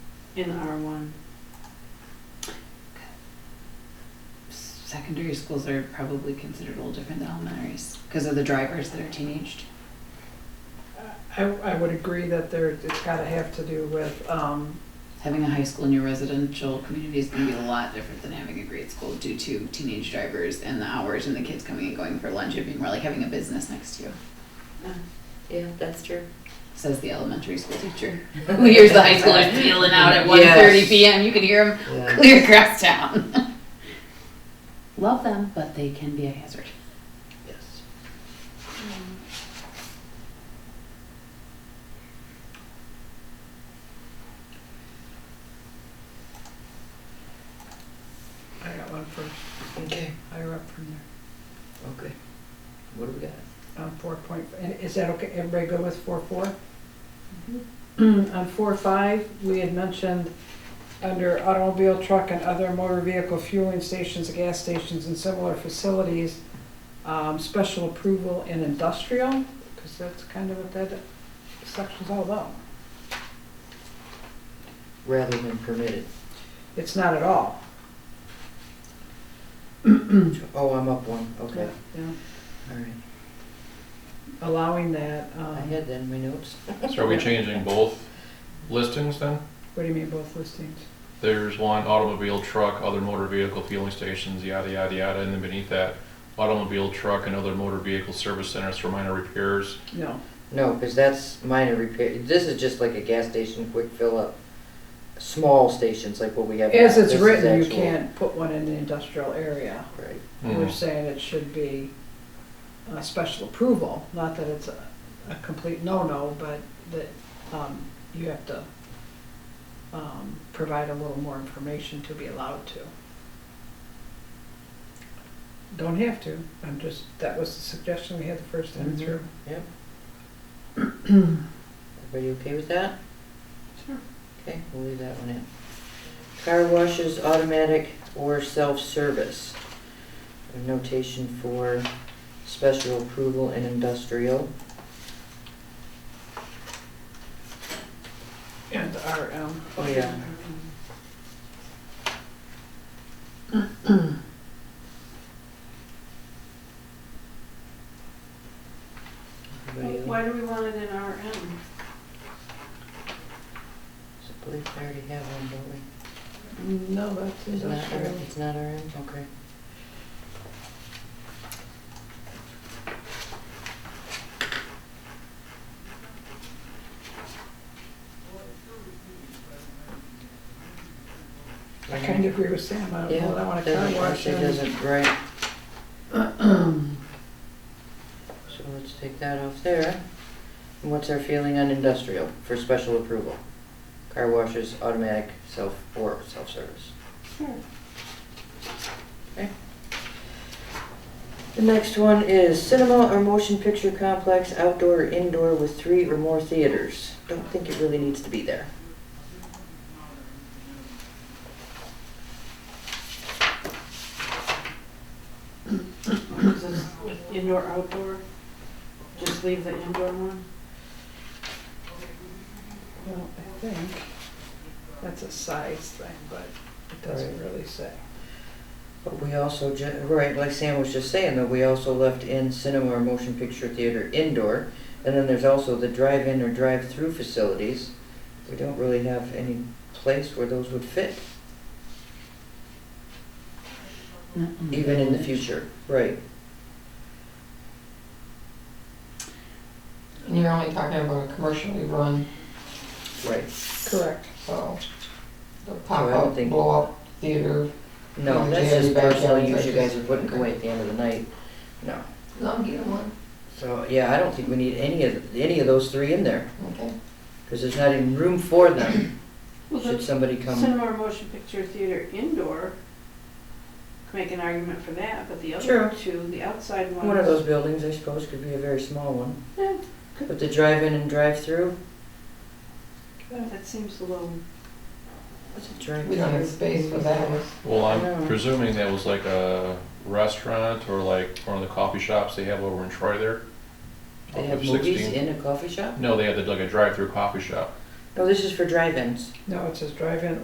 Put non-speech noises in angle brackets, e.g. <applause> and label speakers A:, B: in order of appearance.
A: in R one.
B: Secondary schools are probably considered a little different than elementaries because of the drivers that are teenaged.
C: I, I would agree that there, it's gotta have to do with, um,
B: Having a high school in your residential community is going to be a lot different than having a grade school due to teenage drivers and the hours and the kids coming and going for lunch. It'd be more like having a business next to you,
D: Yeah, that's true.
B: says the elementary school teacher. <laughs> Who hears the high schoolers peeling out at 1.30 p.m. You can hear them clear across
E: <laughs>
B: town. Love them, but they can be a hazard.
E: Yes.
C: I got one first,
E: Okay,
C: higher up from there,
E: okay. What do we got?
C: on four point, and is that okay, everybody good with four four? On four five, we had mentioned under automobile, truck, and other motor vehicle fueling stations, gas stations, and similar facilities, um, special approval in industrial, because that's kind of what that section's all about.
E: Rather than permitted.
C: It's not at all. <clears throat>
E: Oh, I'm up one, okay,
C: Yeah,
E: all right.
C: allowing that, um,
E: Oh, I had that in my notes.
F: So are we changing both listings then?
C: what do you mean both listings?
F: There's one automobile, truck, other motor vehicle fueling stations, yada, yada, yada, and then beneath that, automobile, truck, and other motor vehicle service centers for minor repairs.
C: No,
E: No, because that's minor repair, this is just like a gas station quick fill up. Small stations like what we have.
C: as
E: now.
C: it's
E: This is
C: written, you
E: actual-
C: can't put one in the industrial area.
E: Right,
F: Hmm.
C: We're saying it should be a special approval, not that it's a, a complete no-no, but that, um, you have to, um, provide a little more information to be allowed to. Don't have to, I'm just, that was the suggestion we had the first time
E: Mhm.
C: through.
E: yep. Everybody okay with that?
A: Sure.
E: Okay, we'll leave that one in. Car washes, automatic or self-service. A notation for special approval and industrial.
C: And RM.
E: Oh, yeah. Everybody else?
A: Why do we want it in RM?
E: I believe we already have one, don't we?
C: No, that's
E: It's not,
C: industrial.
E: it's not our end, okay.
C: I kind of agree with Sam, I don't know, I want a car
E: doesn't-
C: wash
E: It
C: and
E: doesn't, right. So let's take that off there. And what's our feeling on industrial for special approval? Car washes, automatic, self, or self-service.
A: Sure.
E: The next one is cinema or motion picture complex, outdoor or indoor with three or more theaters. Don't think it really needs to be there.
A: Is this Indoor, outdoor? Just leave the indoor one?
C: Well, I think that's a size thing, but it doesn't
E: Right.
C: really say.
E: But we also, ju- right, like Sam was just saying, though, we also left in cinema or motion picture theater indoor. And then there's also the drive-in or drive-through facilities. We don't really have any place where those would fit,
B: Mm-hmm.
E: even in the future. Right.
G: And you're only talking about a commercially run,
E: Right.
C: Correct.
G: so the
E: So I don't
G: pop-up,
E: think-
G: blow-up theater.
E: No, that's
G: Yeah, they have
E: just
G: backyard
E: personal use you
G: places.
E: guys are putting away at the end of the night. No.
G: No, I'm getting one,
E: So, yeah, I don't think we need any of, any of those three in there,
G: okay.
E: because there's not even room for them,
A: <coughs> Well,
E: should
A: the
E: somebody come.
A: cinema or motion picture theater indoor, could make an argument for that, but the
E: True.
A: other two, the outside ones.
E: One of those buildings, I suppose, could be a very small one.
A: eh,
E: But the drive-in and drive-through,
A: eh, That seems a little,
E: what's a
G: We don't have
E: drive-through?
G: space for that.
F: Well,
E: No.
F: I'm presuming that was like a restaurant or like one of the coffee shops they have over in Troy there.
E: They have
F: Of
E: movies
F: 16.
E: in a coffee shop?
F: No, they had like a drive-through coffee shop.
H: No, this is for drive-ins.
E: No, it says drive-in